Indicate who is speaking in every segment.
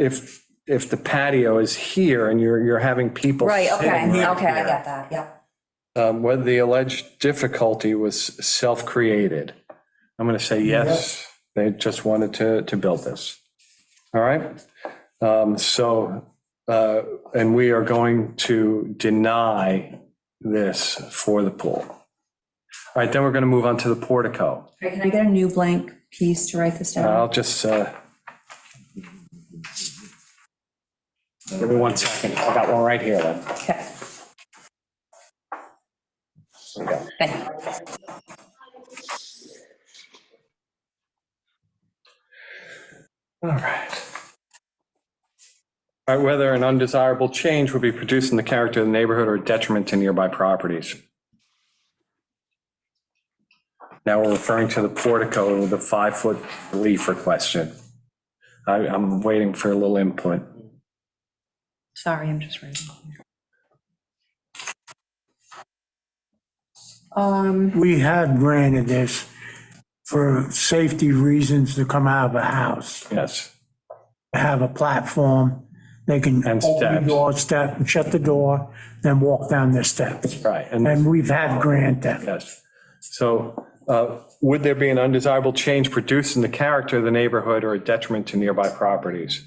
Speaker 1: if, if the patio is here and you're, you're having people.
Speaker 2: Right,
Speaker 1: sitting
Speaker 2: okay,
Speaker 1: right
Speaker 2: okay, I
Speaker 1: here,
Speaker 2: get that, yep.
Speaker 1: um, Whether the alleged difficulty was self-created. I'm going to say yes, they just wanted to, to build this. All right? Um, So, uh, and we are going to deny this for the pool. All right, then we're going to move on to the portico.
Speaker 2: All right, Can I get a new blank piece to write this down?
Speaker 1: I'll just, uh, give me one second. I got one right here, then.
Speaker 2: Okay,
Speaker 1: Here we go.
Speaker 2: thank you.
Speaker 1: All right. All right, whether an undesirable change would be produced in the character of the neighborhood or detriment to nearby properties. Now we're referring to the portico with the five-foot relief requested. I, I'm waiting for a little input.
Speaker 2: Sorry, I'm just writing. Um,
Speaker 3: We have granted this for safety reasons to come out of a house,
Speaker 1: Yes,
Speaker 3: have a platform. They can
Speaker 1: And
Speaker 3: open
Speaker 1: steps.
Speaker 3: the door, step, shut the door, then walk down the steps.
Speaker 1: right.
Speaker 3: And we've had grant that.
Speaker 1: Yes. So uh, would there be an undesirable change produced in the character of the neighborhood or a detriment to nearby properties?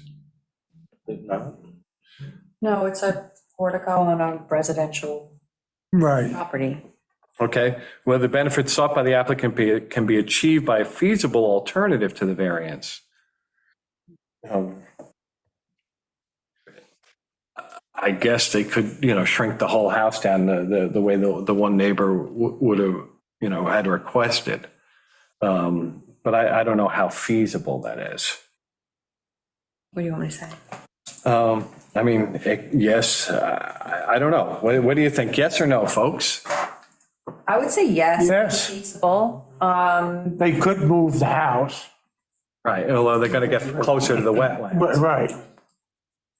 Speaker 2: no, it's a portico on a residential
Speaker 3: Right.
Speaker 2: property.
Speaker 1: Okay, whether the benefits sought by the applicant be, can be achieved by a feasible alternative to the variance. Um, I guess they could, you know, shrink the whole house down the, the, the way the, the one neighbor wo- would have, you know, had requested. Um, But I, I don't know how feasible that is.
Speaker 2: What do you want me to say?
Speaker 1: Um, I mean, eh, yes, uh, I, I don't know. What, what do you think? Yes or no, folks?
Speaker 2: I would say yes.
Speaker 3: Yes.
Speaker 2: Feasible. Um,
Speaker 3: They could move the house.
Speaker 1: Right, although they're gonna get closer to the wetland.
Speaker 3: But, right,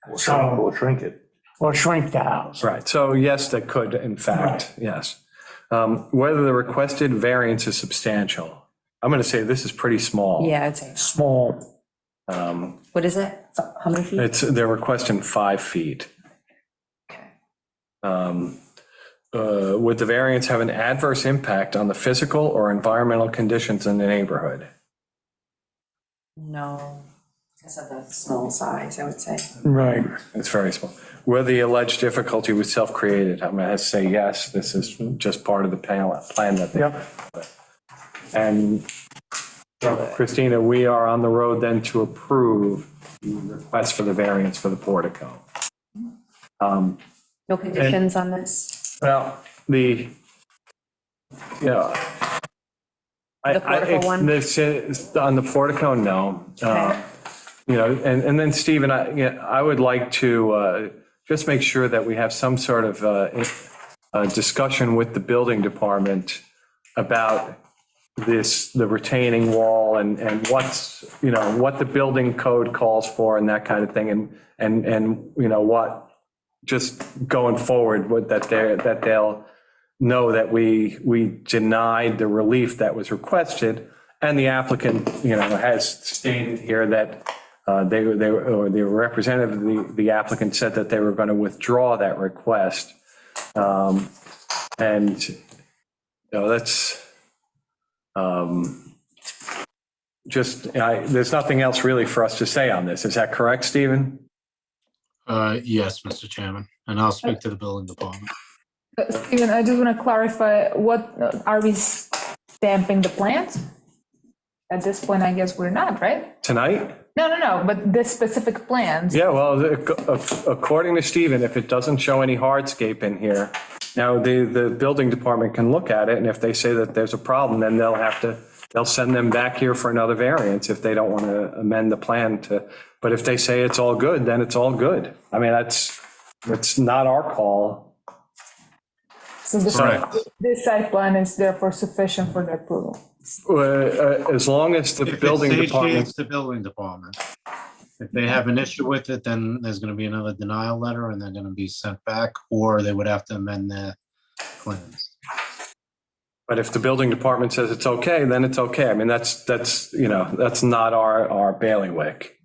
Speaker 4: We'll shrink- We'll shrink it.
Speaker 3: or shrink the house.
Speaker 1: Right, so yes, that could, in fact, yes. Um, Whether the requested variance is substantial. I'm going to say this is pretty small.
Speaker 2: yeah, I'd say,
Speaker 3: Small.
Speaker 1: Um,
Speaker 2: what is it? How many feet?
Speaker 1: It's, they're requesting five feet.
Speaker 2: Okay.
Speaker 1: Um, uh, Would the variance have an adverse impact on the physical or environmental conditions in the neighborhood?
Speaker 2: No. Because of the small size, I would say.
Speaker 3: Right.
Speaker 1: It's very small. Whether the alleged difficulty was self-created, I'm going to say yes, this is just part of the plan plan that they
Speaker 3: Yep.
Speaker 1: And Christina, we are on the road then to approve the request for the variance for the portico. Um,
Speaker 2: No conditions on this?
Speaker 1: Well, the, yeah. I-
Speaker 2: The
Speaker 1: I-
Speaker 2: portico
Speaker 1: it's-
Speaker 2: one?
Speaker 1: this is- On the portico, no. Uh,
Speaker 2: Okay.
Speaker 1: You know, and, and then Stephen, I, yeah, I would like to uh, just make sure that we have some sort of uh, in- uh, discussion with the building department about this, the retaining wall and, and what's, you know, what the building code calls for and that kind of thing. And, and, and, you know, what, just going forward with that they're, that they'll know that we, we denied the relief that was requested. And the applicant, you know, has stated here that uh, they, were- they, were- or the representative, of the, the applicant said that they were going to withdraw that request. Um, And, you know, that's, um, just, I, there's nothing else really for us to say on this. Is that correct, Stephen?
Speaker 5: Uh, Yes, Mr. Chairman, and I'll speak to the building department.
Speaker 6: But Steven, I just want to clarify, what, uh, are we stamping the plant? At this point, I guess we're not, right?
Speaker 1: Tonight?
Speaker 6: No, no, no, but this specific plant,
Speaker 1: Yeah, well, the- ac- according to Stephen, if it doesn't show any hardscape in here, now the, the building department can look at it, and if they say that there's a problem, then they'll have to, they'll send them back here for another variance if they don't want to amend the plan to, but if they say it's all good, then it's all good. I mean, that's, it's not our call.
Speaker 6: so this,
Speaker 5: Correct.
Speaker 6: this site plan is therefore sufficient for the approval.
Speaker 1: Uh, uh, As long as the
Speaker 5: If it's
Speaker 1: building
Speaker 5: safety,
Speaker 1: department,
Speaker 5: It's the building department. If they have an issue with it, then there's going to be another denial letter and they're going to be sent back, or they would have to amend their plans.
Speaker 1: but if the building department says it's okay, then it's okay. I mean, that's, that's, you know, that's not our, our bailiwick.